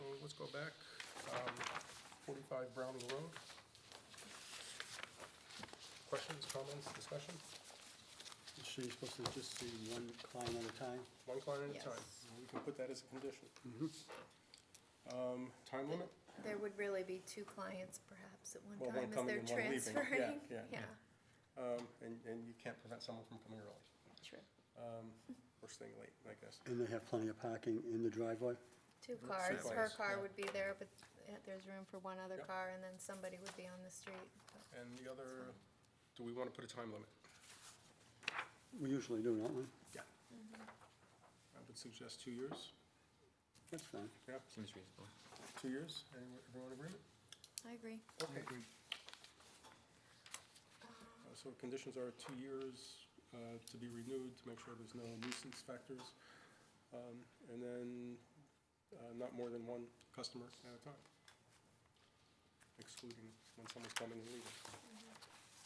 Um, go back, um, forty-five Browning Road. Questions, comments, discussion? So you're supposed to just see one client at a time? One client at a Yes. time. We can put that as a condition. Um, time limit? There would really be two clients perhaps at one Well, time one as coming they're and one leaving. Yeah, transferring. yeah, yeah. Um, and, and you can't prevent someone from coming early, true. um, or staying late, I guess. And they have plenty of parking in the driveway? Two cars, her cars, car yeah. would be there, but uh, there's room for one other Yep. car and then somebody would be on the street. but- And the other, do we want to put a time limit? We usually do, don't we? Yeah. I would suggest two years. That's fine. Yeah, Seems reasonable. two years. Anyone, everyone in agreement? I agree. Okay. Uh, So conditions are two years uh, to be renewed to make sure there's no nuisance factors. um, And then uh, not more than one customer at a time, excluding when someone's coming and leaving.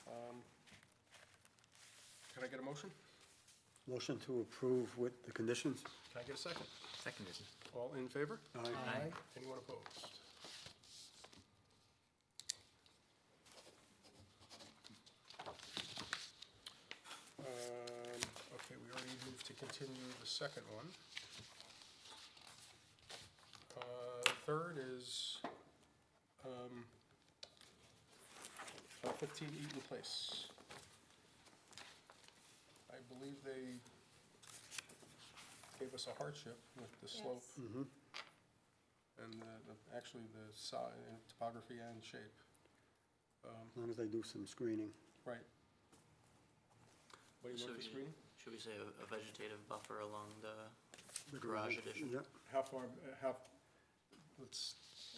Um, Can I get a motion? Motion to approve with the conditions? Can I get a second? Seconded. All in favor? Aye. Aye. Anyone opposed? Um, Okay, we already moved to continue the second one. Uh, Third is um, uh, 15 Eaton Place. I believe they gave us a hardship with the slope Yes. Mm-hmm, and the, the- actually the size, topography and shape. Um, As long as they do some screening. Right. What do you So look for you- screening? Should we say a a vegetative buffer along the garage addition? Yep, How far, uh, how, let's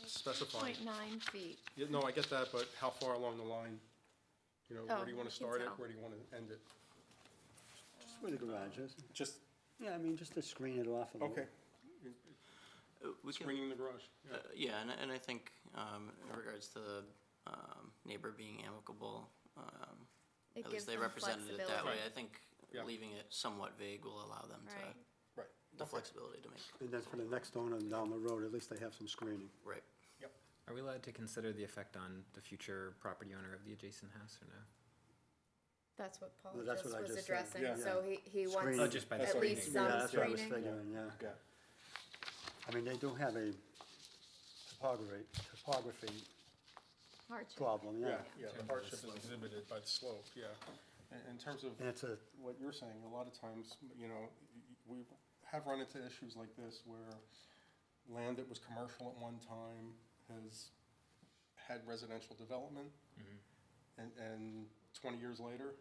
specify. Point nine feet. Yeah, no, I get that, but how far along the line? You know, where Oh, do you want you to can start it, tell. where do you want to end it? just where the garage is. Just, Yeah, I mean, just to screen it off a little. okay, Uh, We can, screening the garage, yeah. uh, yeah, and, I- and I think, um, in regards to the, um, neighbor being amicable, um, It at gives least they them represented it that way. flexibility. I think Yeah. leaving it somewhat vague will allow them Right. to, right, the flexibility to make, And then for the next owner down the road, at least they have some screening. right. yep. Are we allowed to consider the effect on the future property owner of the adjacent house or no? That's what Paul Well, that's just what I was just said, addressing, yeah. so he, he Screening. Oh, wants just by the at least screening. Yeah, some that's what I was screening. figuring, yeah. Yeah, I mean, they do have a topography, topography Hardship. problem, yeah, yeah. yeah, the hardship is exhibited by the slope, yeah. In, in terms of. And it's a, what you're saying, a lot of times, you know, y- y- we have run into issues like this where land that was commercial at one time has had residential development. And, and twenty years later,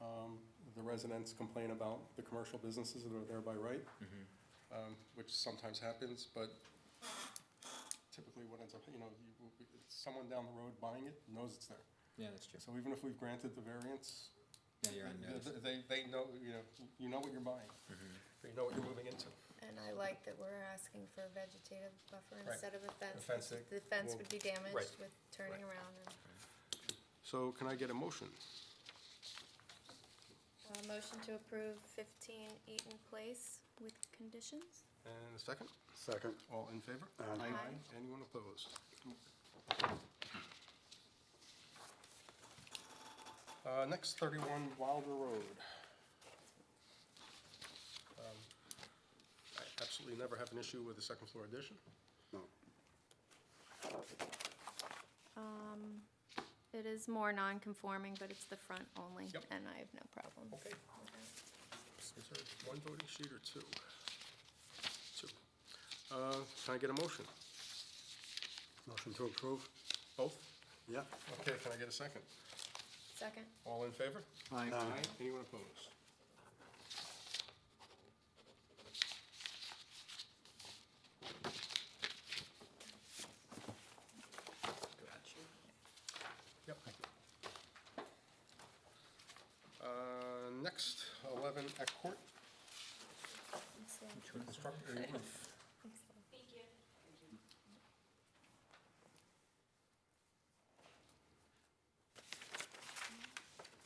um, the residents complain about the commercial businesses that are there by right. Um, which sometimes happens, but typically what ends up, you know, you, someone down the road buying it knows it's there. Yeah, that's true. So even if we've granted the variance, Yeah, you're on Th- notice. th- They, they know, you know, you know what you're buying. You know what you're moving into. And I like that we're asking for a vegetative buffer Right. instead of a fence. fence that because The fence will- would be damaged right, with turning around. and- So can I get a motion? Uh, Motion to approve fifteen Eaton Place with conditions? And a second? second, All in favor? Aye. Aye. Aye. Anyone opposed? Uh, next, thirty-one Wilder Road. Um, I absolutely never have an issue with a second floor addition. no, Um, it is more non-conforming, but it's the front only, Yep. and I have no problem. Okay. with that. Is there one voting sheet or two? Two. Uh, can I get a motion? motion to approve, Both? yeah. Okay, can I get a second? Second, All in favor? Aye. Anyone opposed? Yep. Uh, next, eleven at court, Let's see. construct a roof.